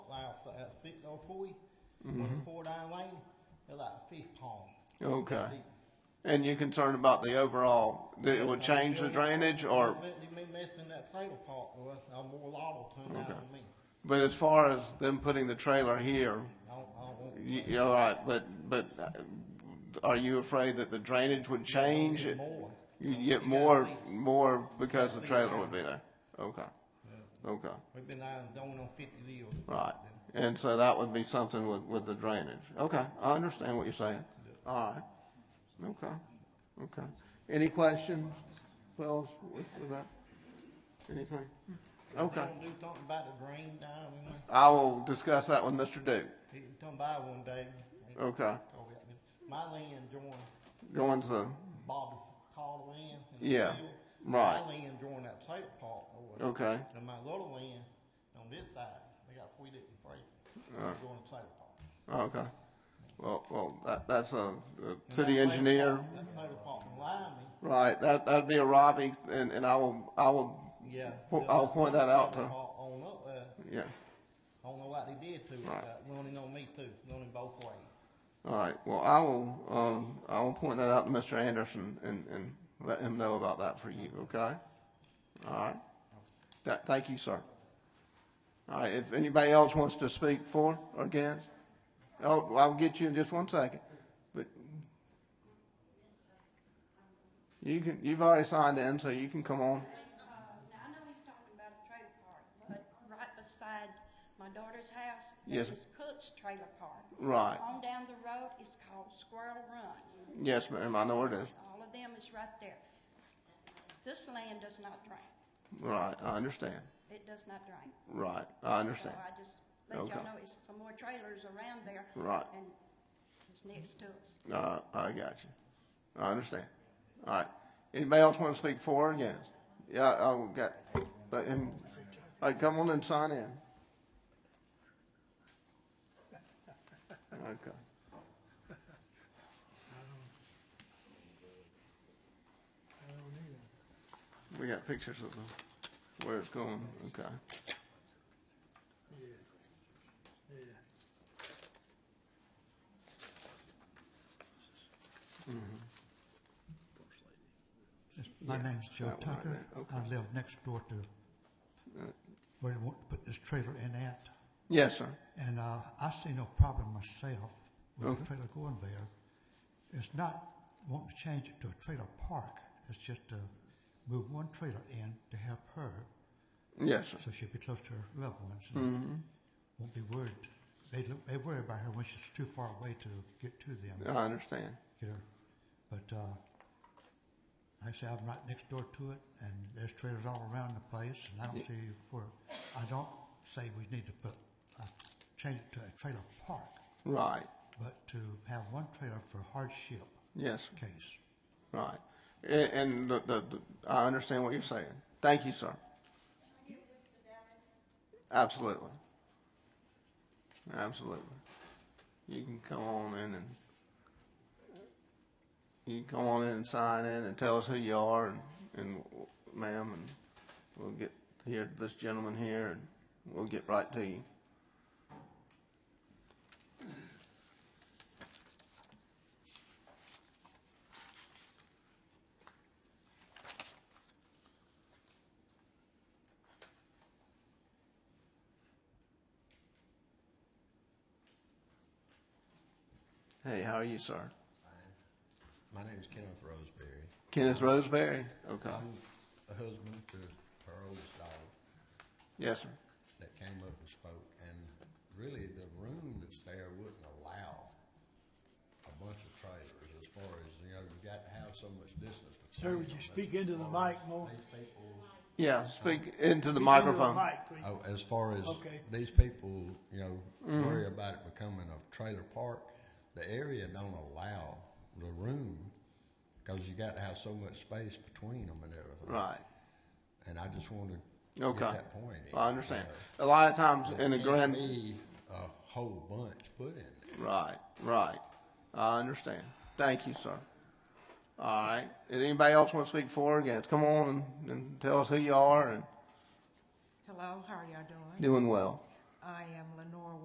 house like that sitting on Foy, Mm-hmm. when it's poured down lane, they're like a fish pond. Okay. Deep. And you're concerned about the overall, that it would change the drainage or, It'd be messing that trailer park or I'm more liable to than Okay. me. but as far as them putting the trailer here, I don't, I don't want. you, you're all right, but, but uh, are you afraid that the drainage would change? Get more. You'd get You more, gotta see. more because the see trailer now. would be there? Okay. Okay. We've been down, going on fifty deals. Right, and so that would be something with, with the drainage. Okay, I understand what you're saying. All right, okay, okay. Any questions, Wells, with with that? Anything? Okay, Gonna do something about the drain down, you know, I will discuss that with Mr. Duke. he can come by one day. Okay, Over at me. My land joined joins the, Bobby's Carter land. and Yeah, field. right. My land joined that trailer park over. okay, And my little land on this side, they got three different places, Uh. going to trailer park. okay. Well, well, that, that's a, a And city that trailer engineer, park- That trailer park in Lyman, right, that, that'd be a Robbie, and, and I will, I will, yeah. Po- I'll point that out trailer to- park On up there, yeah. I don't know what they did to it, Right. but running on me too, running both ways. All right, well, I will, um, I will point that out to Mr. Anderson and, and let him know about that for you, okay? All right. Th- thank you, sir. All right, if anybody else wants to speak for or against, oh, I'll get you in just one second, but you can, you've already signed in, so you can come on. Uh, Now, I know he's talking about a trailer park, but right beside my daughter's house, Yes. there is Cook's Trailer Park. Right. On down the road, it's called Squirrel Run. Yes, ma'am, I know where it is. All of them is right there. This land does not drain. Right, I understand. It does not drain. Right, I understand. So I just let Okay. y'all know, it's some more trailers around there. Right. And it's next to us. Uh, I got you. I understand. All right. Anybody else want to speak for or against? Yeah, I I got, but, and, all right, come on and sign in. Okay. We got pictures of them, where it's going, okay. My name's Joe that one right Tucker. there. Uh, I live next door to where they want to put this trailer in at. Yes, sir. And uh, I see no problem myself with Okay. the trailer going there. It's not wanting to change it to a trailer park. It's just to move one trailer in to help her Yes, sir. so she'll be close to her loved ones and Mm-hmm. won't be worried. They, look, they worry about her when she's too far away to get to them I understand. you know. But uh, like I say, I'm right next door to it, and there's trailers all around the place, and I don't see where. I don't say we need to put uh, change it to a trailer park, Right. but to have one trailer for hardship Yes, sir. case. Right. And, and the, the, the, I understand what you're saying. Thank you, sir. Absolutely. Absolutely. You can come on in and, you can come on in and sign in and tell us who you are and, and ma'am, and we'll get here to this gentleman here and we'll get right to you. Hey, how are you, sir? My name's Kenneth Roseberry. Kenneth Roseberry? Okay. I'm a husband to her oldest daughter Yes, sir. that came up and spoke, and really the room that's there wouldn't allow a bunch of trailers as far as, you know, you got to have so much distance. Sir, would you speak into the mic more? These people's Yeah, speak into Speak into the microphone. mic, please. Oh, as far as Okay. these people, you know, worry about it becoming a trailer park, the area don't allow the room because you got to have so much space between them and everything. Right. And I just wanted to Okay. get that point. Uh, in, I understand. you know. A lot of times in the Can't grand, be a whole bunch put in there. right, right. I understand. Thank you, sir. All right. Did anybody else want to speak for or against? Come on and, and tell us who you are and Hello, how are y'all doing? doing well. I am Lenore